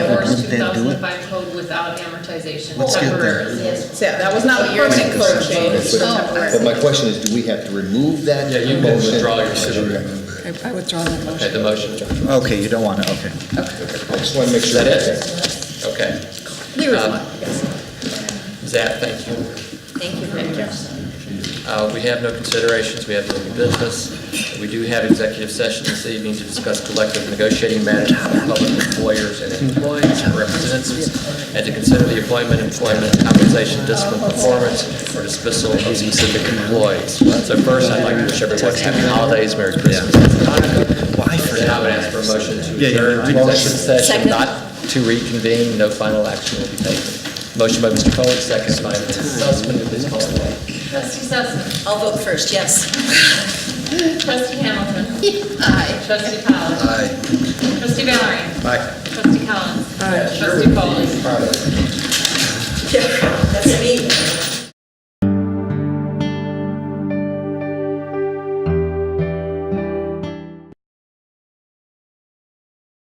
Wouldn't was two that do it? thousand by code without amortization Let's get there. temporarily. Yes, so that was not a permanent code change, so temporary. But my question is, do we have to remove that? Yeah, you can motion? withdraw your second. I- I withdraw that Okay, motion. the motion. Okay, you don't want to, okay. I just want to make Is sure. that it? Okay. There is Um, one, yes. Zach, thank you. Thank you very much. Uh, We have no considerations, we have no new business. We do have executive session this evening to discuss collective negotiating matters with public employers and employees and representatives, and to consider the employment, employment compensation, discipline, performance, or dismissal of specific employees. So first, I'd like to wish everyone happy holidays, Merry Christmas, and Hanukkah. And I would ask for a motion to Yeah, yeah, adjourn I- to executive session, Second. not to reconvene, no final action will be taken. Motion by Mr. Cohen, second by Mrs. Sussman, please call the roll. Trustee Sussman. I'll vote first, yes. Trustee Hamilton. Aye. Trustee Powell. Aye. Trustee Valerie. Aye. Trustee Collins. Aye. Trustee Foley. Yeah.